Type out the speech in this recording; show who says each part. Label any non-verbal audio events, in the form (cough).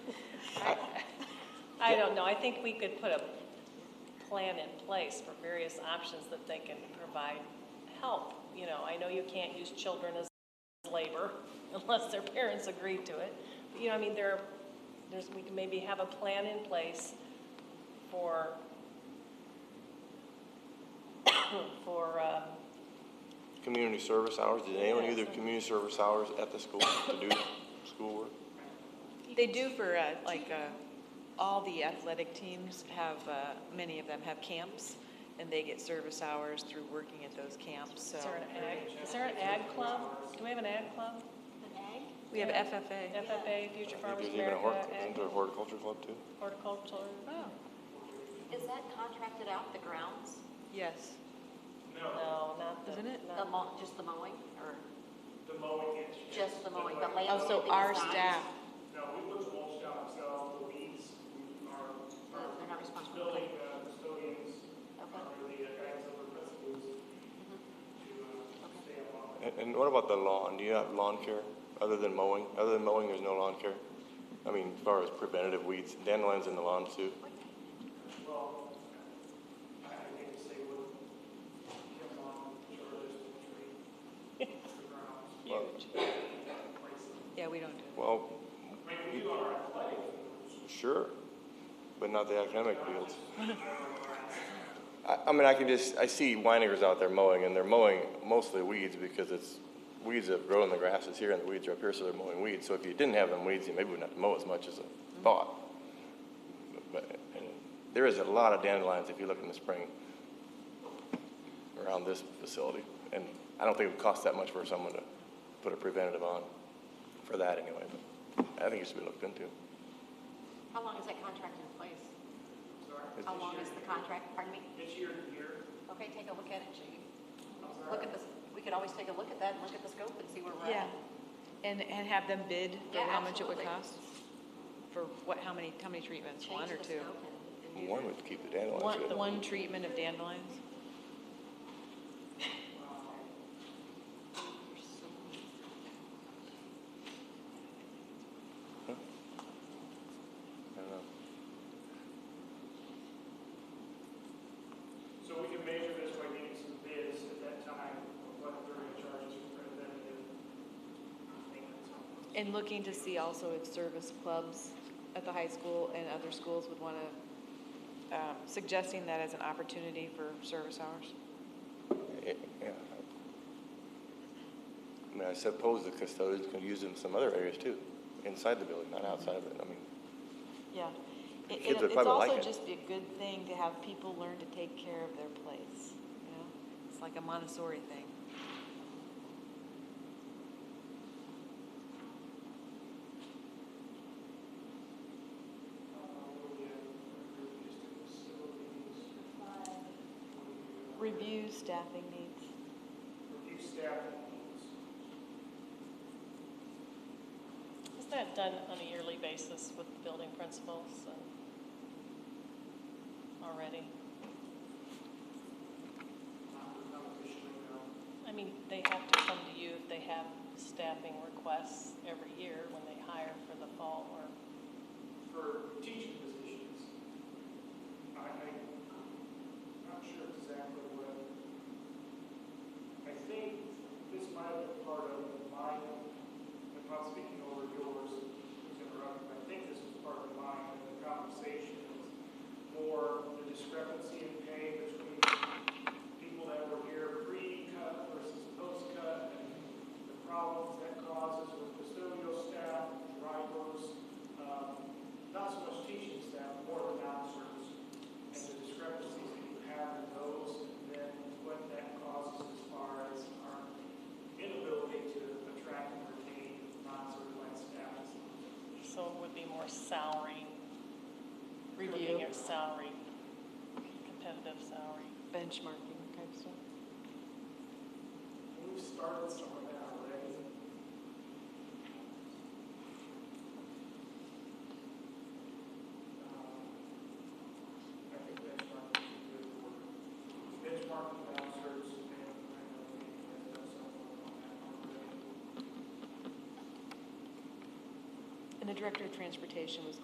Speaker 1: I don't know, I think we could put a plan in place for various options that they can provide help. You know, I know you can't use children as labor (laughs) unless their parents agree to it. But, you know, I mean, there, there's, we can maybe have a plan in place for, (coughs) for, uh,
Speaker 2: Community service hours, did anyone
Speaker 1: Yeah,
Speaker 2: do their
Speaker 1: so-
Speaker 2: community service hours at the school to do schoolwork?
Speaker 3: They do for, uh, like, uh, all the athletic teams have, uh, many of them have camps, and they get service hours through working at those camps, so.
Speaker 1: is there an ag, is there an ag club? Do we have an ag club?
Speaker 4: An egg?
Speaker 3: We have FFA.
Speaker 1: FFA, Future
Speaker 2: I think
Speaker 1: Farmers
Speaker 2: There's even a
Speaker 1: America,
Speaker 2: horticulture,
Speaker 1: ag-
Speaker 2: isn't there a horticulture club too?
Speaker 1: horticulture.
Speaker 3: Oh,
Speaker 4: Is that contracted out, the grounds?
Speaker 3: yes.
Speaker 1: No, not the.
Speaker 3: Isn't it?
Speaker 1: not-
Speaker 4: The mow, just the mowing, or?
Speaker 5: The mowing is.
Speaker 4: Just the mowing, the
Speaker 5: land.
Speaker 4: landscaping
Speaker 3: Also, Oh, our
Speaker 4: design?
Speaker 3: staff,
Speaker 5: No, we put the mulch down ourselves, the weeds, we are.
Speaker 4: Uh, They're not responsible.
Speaker 5: Building, uh, custodians,
Speaker 4: Okay,
Speaker 5: are really the uh, guys over principals to, uh,
Speaker 4: Okay.
Speaker 5: stay along.
Speaker 2: And, and what about the lawn? Do you have lawn care other than mowing? Other than mowing, there's no lawn care? I mean, as far as preventative weeds, dandelions in the lawn too.
Speaker 5: Well, I I hate to say what Kim on, sure is, the tree, the grounds,
Speaker 2: Well,
Speaker 5: places.
Speaker 3: yeah, we don't do it.
Speaker 2: Well,
Speaker 5: I mean, we do our athletic,
Speaker 2: sure, but not the academic fields. I, I mean, I can just, I see winemakers out there mowing, and they're mowing mostly weeds because it's weeds that grow in the grasses here, and the weeds are up here, so they're mowing weeds. So if you didn't have them weeds, you maybe wouldn't have to mow as much as a thought. But, and there is a lot of dandelions if you look in the spring around this facility, and I don't think it would cost that much for someone to put a preventative on, for that anyway. But I think it should be looked into.
Speaker 4: how long is that contract in place?
Speaker 5: sorry,
Speaker 4: How long is the contract, pardon me?
Speaker 5: this year and year,
Speaker 4: Okay, take a look at it, Judy. Look at this, we could always take a look at that and look at the scope and see where we're
Speaker 3: Yeah,
Speaker 4: at.
Speaker 3: and, and have them bid for
Speaker 4: Yeah,
Speaker 3: how much it would
Speaker 4: absolutely.
Speaker 3: cost? For what, how many, how many treatments,
Speaker 4: Change
Speaker 3: one or
Speaker 4: the
Speaker 3: two?
Speaker 4: scope and- and do
Speaker 2: One
Speaker 4: that.
Speaker 2: would keep the dandelions.
Speaker 3: One,
Speaker 2: good.
Speaker 3: one treatment of dandelions?
Speaker 2: I don't know.
Speaker 5: So we can measure this by getting some bids at that time, of what they're gonna charge us for preventative uh, maintenance.
Speaker 3: And looking to see also if service clubs at the high school and other schools would want to, um, suggesting that as an opportunity for service hours.
Speaker 2: Yeah, yeah. I mean, I suppose the custodians could use them in some other areas too, inside the building, not outside of it. I mean,
Speaker 3: Yeah. It-
Speaker 2: Kids
Speaker 3: and
Speaker 2: would probably like it.
Speaker 3: It's also just be a good thing to have people learn to take care of their place, you know? It's like a Montessori thing. Review staffing needs.
Speaker 5: Review staff needs.
Speaker 1: Is that done on a yearly basis with the building principals and- already?
Speaker 5: not the competition right now.
Speaker 1: I mean, they have to come to you if they have staffing requests every year when they hire for the fall or,
Speaker 5: For teaching positions, I, I- I'm not sure exactly what, I think this might have been part of mine, I'm not speaking over yours, who's interrupting, but I think this was part of mine, and the conversation was more the discrepancy in pay between people that were here pre-cut versus post-cut, and the problems that causes with custodial staff, drivers, um, not so much teaching staff, more the officers, and the discrepancies that you have in those, and then what that causes as far as our inability to attract and retain non-certified staff.
Speaker 1: so it would be more salary.
Speaker 3: Review.
Speaker 1: Looking at salary, competitive salary.
Speaker 3: Benchmarking type stuff.
Speaker 5: We've started some of that already. Um, Uh, I think benchmarking is good for, benchmarking officers and, and, and that's something on that already.
Speaker 3: And the director of transportation was